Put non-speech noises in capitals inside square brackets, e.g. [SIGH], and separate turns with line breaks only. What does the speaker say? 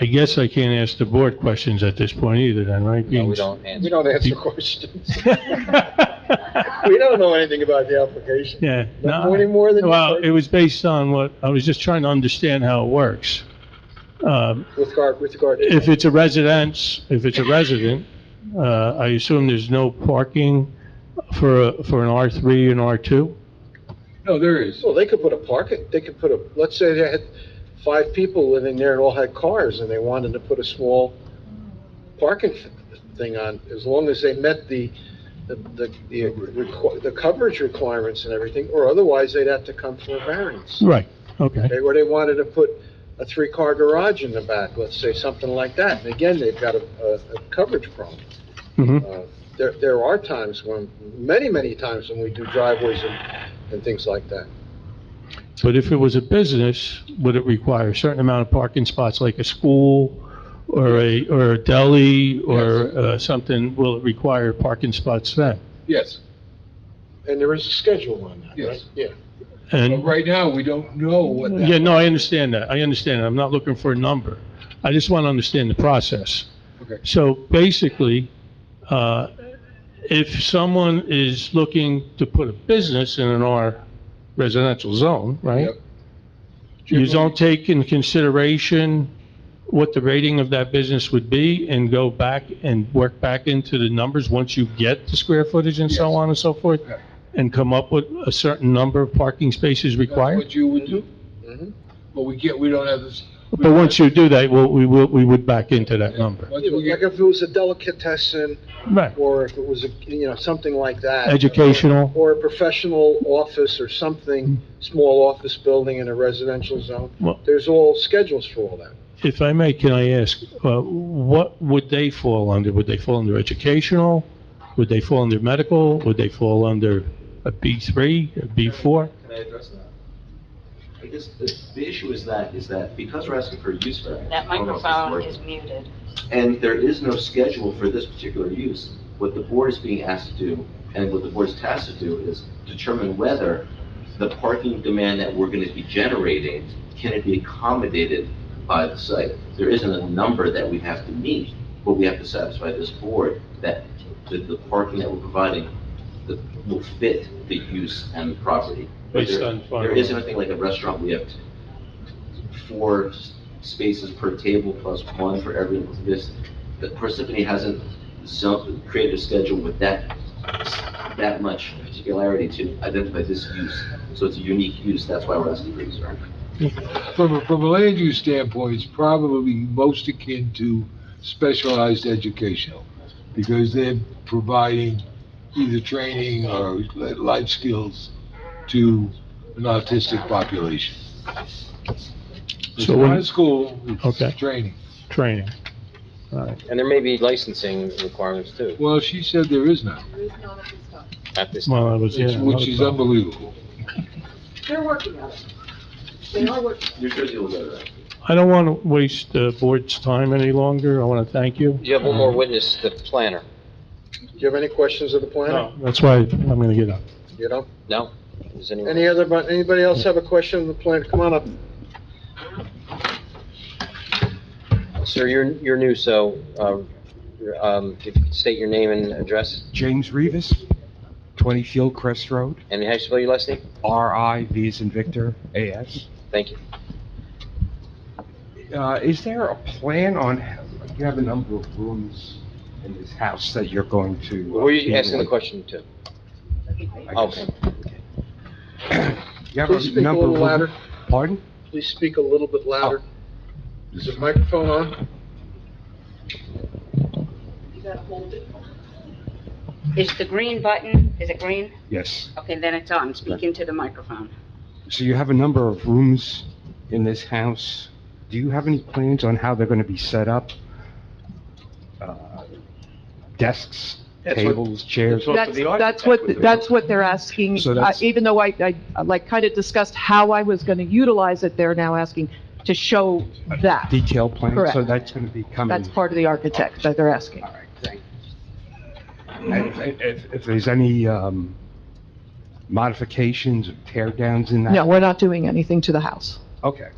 I guess I can't ask the board questions at this point either then, right?
No, we don't
We
answer.
don't answer questions.
don't.
We don't know anything about the application.
[LAUGHS] Yeah,
No
no,
any more than you
well, it
did
was based on what, I was just trying to understand how it works. Um,
with regard, with regard. to-
If it's a residence, if it's a resident, uh, I assume there's no parking for, a- for an R3 and R2?
No, there is.
Well, they could put a parking, they could put a, let's say they had five people living there and all had cars and they wanted to put a small parking f- thing on, as long as they met the, the, the, the requ- the coverage requirements and everything, or otherwise they'd have to come for a variance.
Right, okay.
Okay, or they wanted to put a three-car garage in the back, let's say, something like that. And again, they've got a, a, a coverage problem.
Mhm.
Uh, There, there are times when, many, many times when we do driveways and, and things like that.
But if it was a business, would it require a certain amount of parking spots, like a school or a, or a deli or uh, something? Will it require parking spots then?
Yes.
And there is a schedule on that, right?
Yes.
Yeah.
But
And,
right now, we don't know what that.
yeah, no, I understand that. I understand. that. I'm not looking for a number. I just want to understand the process.
Okay.
So basically, uh, if someone is looking to put a business in an R residential zone, right?
Yep.
You
Generally-
don't take in consideration what the rating of that business would be and go back and work back into the numbers once you get the square footage and so
Yes.
on and so forth?
Yeah.
And come up with a certain number of parking spaces
That's
required?
What you would do,
Mhm.
but we can't, we don't have this. we
But
don't
once
have-
you do that, we'll- we will, we would back into that number.
Once we
Like
get,
if it was a delicatessen,
Right.
or if it was, a you know, something like that.
Educational,
Or a professional office or something, small office building in a residential zone.
Well-
There's all schedules for all that.
if I may, can I ask, uh, what would they fall under? Would they fall under educational? Would they fall under medical? Would they fall under a B3, a B4?
Can I address that? I guess the, the issue is that, is that because we're asking for a use variance.
That
I don't know if this
microphone
works,
is muted.
And there is no schedule for this particular use. What the board is being asked to do, and what the board is tasked to do, is determine whether the parking demand that we're gonna be generating, can it be accommodated by the site? There isn't a number that we have to meet, but we have to satisfy this board that the, the parking that we're providing that will fit the use and the property. But
Based
there-
on farm-
There isn't a thing like a restaurant, we have four s- spaces per table plus one for every, this, the Parsippany hasn't zone, created a schedule with that, that much particularity to identify this use. So it's a unique use, that's why we're asking for this variance.
from a, from a land use standpoint, it's probably most akin to specialized educational, because they're providing either training or li- life skills to an autistic population. It's
So when-
not a school,
Okay.
it's training.
Training.
And there may be licensing requirements too,
Well, she said there is none,
at this,
Well, I was, yeah.
which which is
another
unbelievable.
They're working on it. They are working.
New Jersey will go to that.
problem. I don't want to waste the board's time any longer. I want to thank you.
you have one more witness, the planner,
Do you have any questions of the planner?
That's why I'm going to get up.
You know?
no? Is anyone?
Any other, but anybody else have a question of the planner? Come on up.
Sir, you're, you're new, so, um, you're, um, if you could state your name and address,
James Rivas, 20 Fieldcrest Road,
and how you spell your last name?
RI, V as in Victor, AS.
Thank you.
Uh, Is there a plan on, you have a number of rooms in this house that you're going to... uh,
Were you
be
asking the
in?
question to?
I
Okay.
guess. [COUGHS] You have
Please speak
a
a
number
little
of
louder.
rooms... Pardon?
Please speak a little bit louder.
Oh.
Is the microphone on?
Is the green button, is it green?
Yes.
Okay, then it's on. Speak into the microphone.
So you have a number of rooms in this house. Do you have any plans on how they're going to be set up? Uh, Desks, tables, chairs?
That's, that's what, that's what they're asking,
So
Uh,
that's-
even though I, I, like, kind of discussed how I was going to utilize it, they're now asking to show that.
Detail plan, so
Correct.
that's going to be coming...
Hmm.
That's part of the architect that they're asking.
All right, thank you. And If, if- if there's any um, modifications or tear downs in that?
No, we're not doing anything to the house.
Okay.